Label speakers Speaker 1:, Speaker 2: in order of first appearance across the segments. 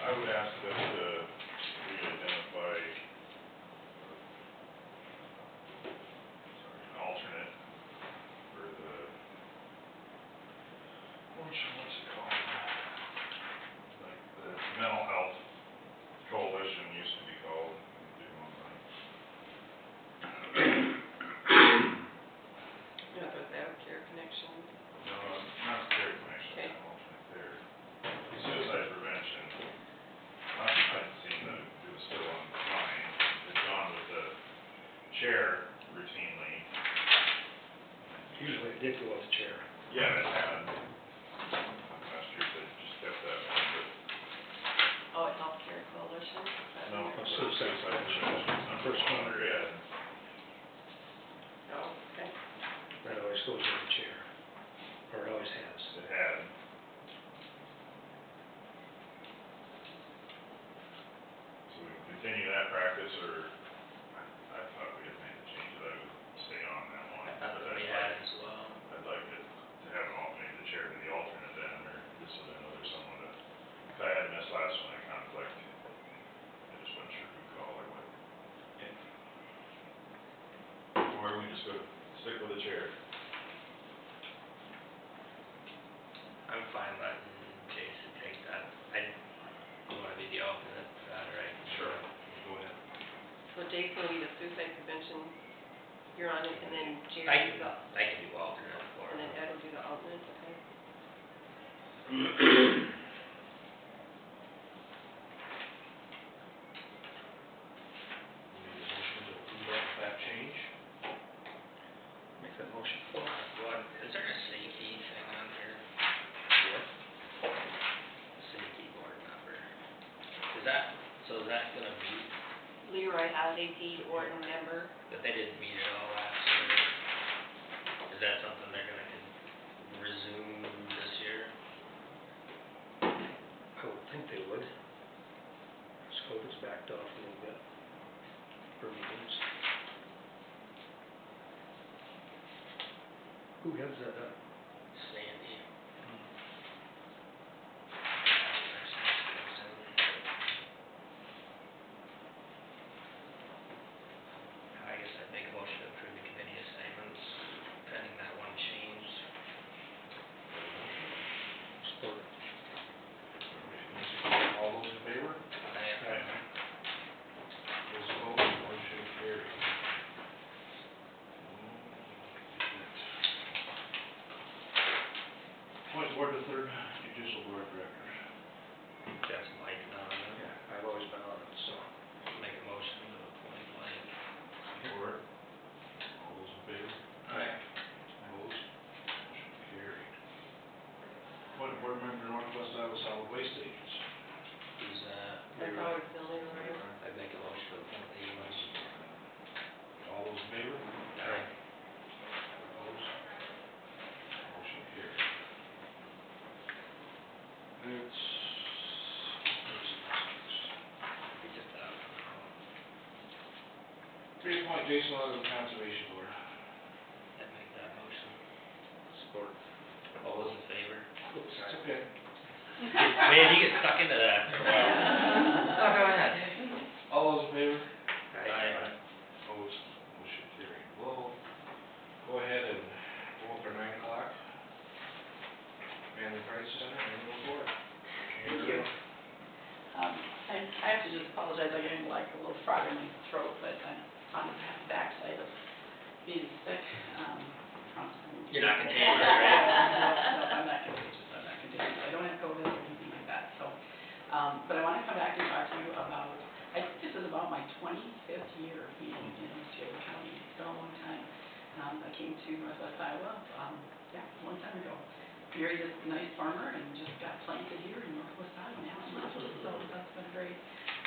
Speaker 1: I would ask that, uh, we identify sorry, an alternate for the, which, what's it called? Like the Mental Health Coalition used to be called, do one like.
Speaker 2: Not without care connection.
Speaker 1: No, not care
Speaker 2: Okay.
Speaker 1: connection, I'm alternate there. Suicide prevention. Last time I'd seen that it was still online, it's on with the chair routinely.
Speaker 3: Usually it did go off the chair.
Speaker 1: Yeah, it had. Last year they just kept that one, but.
Speaker 2: Oh, it's all care coalition? Is that
Speaker 1: No,
Speaker 2: what
Speaker 3: Oh,
Speaker 2: it-
Speaker 3: suicide prevention.
Speaker 1: Number
Speaker 3: First
Speaker 1: one,
Speaker 3: one.
Speaker 1: yeah.
Speaker 2: Oh, okay.
Speaker 3: That always goes off the chair, or it always has.
Speaker 1: It had. So we can continue that practice, or I I thought we had made the change that I would stay on that one.
Speaker 4: I thought
Speaker 1: but
Speaker 4: that we
Speaker 1: I'd
Speaker 4: had
Speaker 1: like-
Speaker 4: as well.
Speaker 1: I'd like to, to have an alternate, the chair to the alternate then, or just so they know there's someone that, if I had missed last one, I conflict. I just wasn't sure who called or what. Or we just go, stick with the chair.
Speaker 4: I'm fine letting Jason take that. I want to be the alternate for that, right?
Speaker 1: Sure. Go ahead.
Speaker 2: So Jason will be the suicide prevention, you're on it, and then
Speaker 4: I
Speaker 2: Jerry will be
Speaker 4: can,
Speaker 2: the,
Speaker 4: I can do alternate for
Speaker 2: and then
Speaker 4: him.
Speaker 2: Ed will do the alternate, okay?
Speaker 3: Make that motion.
Speaker 4: What, is there a sneaky thing on there? Sneaky board member. Is that, so is that gonna meet,
Speaker 2: Leroy has AP Orton member,
Speaker 4: that they didn't meet at all last year? Is that something they're gonna con- resume this year?
Speaker 3: I would think they would. Just COVID's backed off a little bit for meetings. Who heads that up? Hmm.
Speaker 4: Sandy. I guess I'd make a motion to approve the committee assignments pending that one change.
Speaker 3: Support.
Speaker 1: All those in favor?
Speaker 4: I-
Speaker 1: Those opposed, motion carried. Point board to third judicial board of directors.
Speaker 4: That's Mike now, isn't it?
Speaker 3: Yeah, I've always been on it, so.
Speaker 4: make a motion to appoint Mike.
Speaker 1: Support. All those in favor? Opposed,
Speaker 3: Aye.
Speaker 1: motion carried. Point board member Northwest Iowa Solid Waste Agency.
Speaker 4: Who's, uh,
Speaker 2: that's always been Leroy.
Speaker 4: I'd make a motion to appoint Lee West.
Speaker 1: All those in favor?
Speaker 4: Aye.
Speaker 1: Opposed? Motion carried. It's.
Speaker 4: We just, uh,
Speaker 1: Three point Jason Long, Conservation Board.
Speaker 4: I'd make that motion.
Speaker 3: Support.
Speaker 4: All those in favor?
Speaker 1: It's okay.
Speaker 4: Man, you get stuck into that for a while. Stuck on that.
Speaker 1: All those in favor?
Speaker 4: Aye.
Speaker 1: Opposed, motion carried. We'll go ahead and go up our nine o'clock. Man the Price Center and move forward.
Speaker 3: Thank you.
Speaker 5: Um, I, I have to just apologize, I'm getting like a little frog in my throat, but I'm on the backside of being sick, um, from
Speaker 4: You're not
Speaker 5: no,
Speaker 4: contagious, right?
Speaker 5: I'm not contagious, I'm not contagious, I don't have COVID or anything like that, so, um, but I wanna come back and talk to you about, I think this is about my twenty-fifth year of being in Osceola County, it's been a long time. Um, I came to Northwest Iowa, um, yeah, a long time ago, married this nice farmer and just got planted here in Northwest Iowa now, and loved it, so that's been great.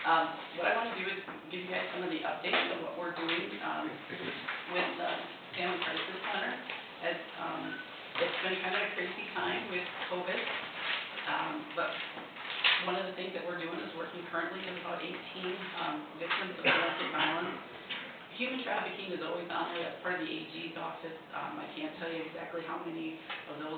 Speaker 5: Um, what I wanna do is give you guys some of the updates of what we're doing, um, with the Family Crisis Center. As, um, it's been kind of a crazy time with COVID, um, but one of the things that we're doing is working currently with about eighteen, um, victims of domestic violence. Human trafficking is always on there, that's part of the AG's office, um, I can't tell you exactly how many of those